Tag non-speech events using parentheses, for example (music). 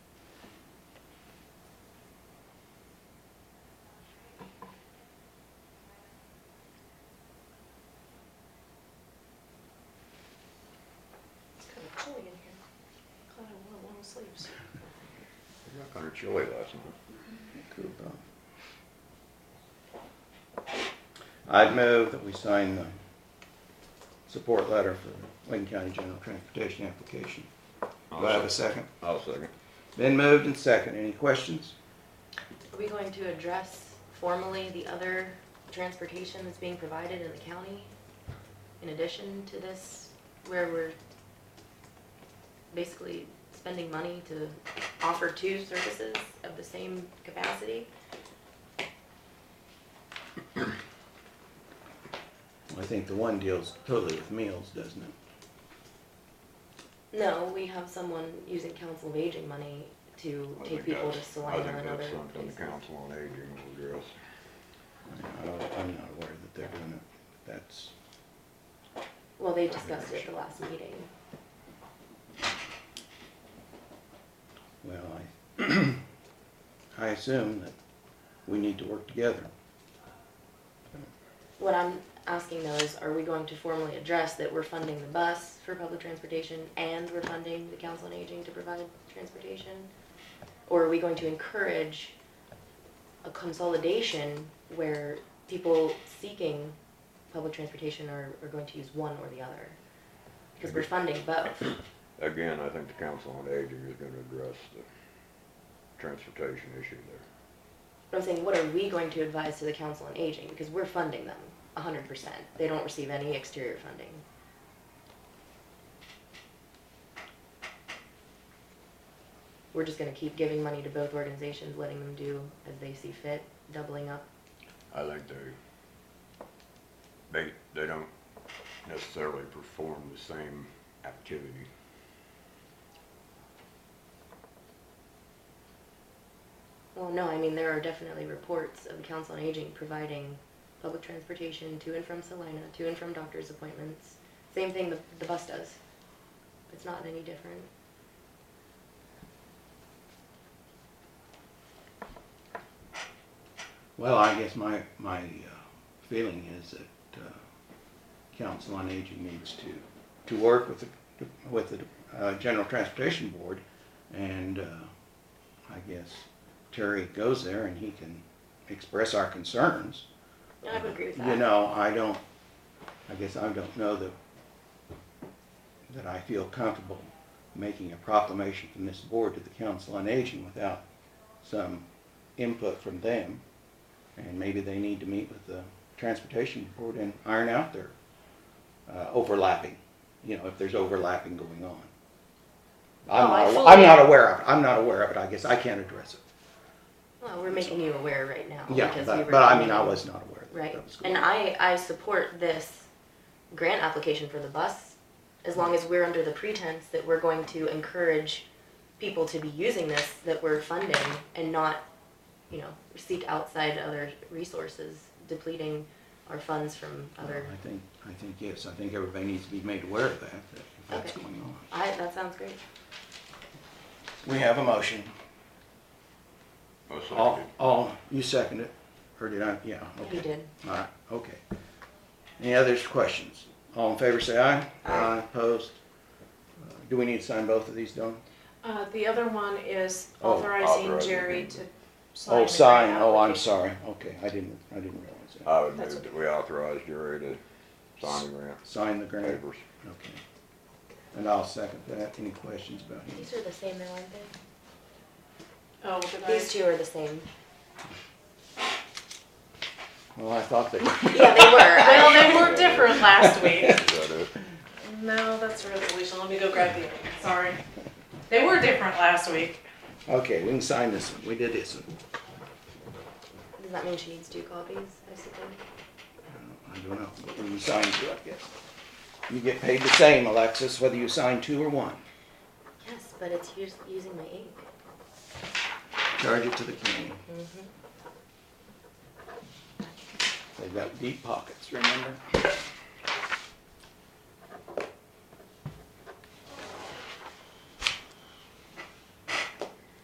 kind of chilly last night. Cool, though. I'd move that we sign the support letter for Lincoln County General Transportation application. Do I have a second? I'll second. Been moved and second. Any questions? Are we going to address formally the other transportation that's being provided in the county in addition to this, where we're basically spending money to offer two services of the same capacity? I think the one deals totally with meals, doesn't it? No, we have someone using council of aging money to I take think people to that's- Salina and I think other that's something the places. council on aging will address. I don't, I'm not aware that they're doing it. That's, Well, they discussed it at the last meeting. well, (clears throat) I, I assume that we need to work together. What I'm asking though is, are we going to formally address that we're funding the bus for public transportation and we're funding the council on aging to provide transportation? Or are we going to encourage a consolidation where people seeking public transportation are, are going to use one or the other? Because we're funding both. Again, I think the council on aging is gonna address the transportation issue there. But I'm saying, what are we going to advise to the council on aging? Because we're funding them hundred percent. They don't receive any exterior funding. We're just gonna keep giving money to both organizations, letting them do as they see fit, doubling up. I think they, they, they don't necessarily perform the same activity. Well, no, I mean, there are definitely reports of the council on aging providing public transportation to and from Salina, to and from doctor's appointments. Same thing the, the bus does. It's not any different. Well, I guess my, my uh, feeling is that uh, Council on Aging needs to, to work with the, with the uh, General Transportation Board, and uh, I guess Terry goes there and he can express our concerns. I would agree with that. You know, I don't, I guess I don't know that, that I feel comfortable making a proclamation from this board to the Council on Aging without some input from them. And maybe they need to meet with the Transportation Board and iron out their uh, overlapping, you know, if there's overlapping going on. I'm Oh, I not, fully- I'm not aware of it, I'm not aware of it, I guess I can't address it. Well, we're making you aware right now. Yeah, because we but, were but I mean, I talking- was not aware that Right, that was going and on. I, I support this grant application for the bus, as long as we're under the pretense that we're going to encourage people to be using this, that we're funding, and not, you know, seek outside other resources, depleting our funds from other, Well, I think, I think, yes, I think everybody needs to be made aware of that, that if that's Okay. going on. I, that sounds great. We have a motion. I All, second it. all, you second it, or did I, yeah, okay. You did. All right, okay. Any others, questions? All in favor, say aye. Aye. Opposed? Uh, Do we need to sign both of these, Dawn? Uh, the other one is Oh, authorizing authorizing Jerry him. to sign. Oh, the sign, grant oh, I'm application. sorry, okay, I didn't, I didn't realize that. I would That's move that we authorize Jerry to sign the grant Sign the (coughs) grant, papers. okay. And I'll second that, any questions about him? These are the same, though, aren't they? Oh, did I? These two are the same. Well, I thought they Yeah, (laughs) they were. Well, I- they were different last week. Is that it? (laughs) No, that's a resolution. Let me go grab the, other one. sorry. They were different last week. Okay, we can sign this one, we did this one. Does that mean she needs two copies, I suppose? I don't know, but when you sign two, I guess. You get paid the same, Alexis, whether you sign two or one. Yes, but it's us- using my ink. Charge it to the county. Mm-hmm. They've got deep pockets, remember?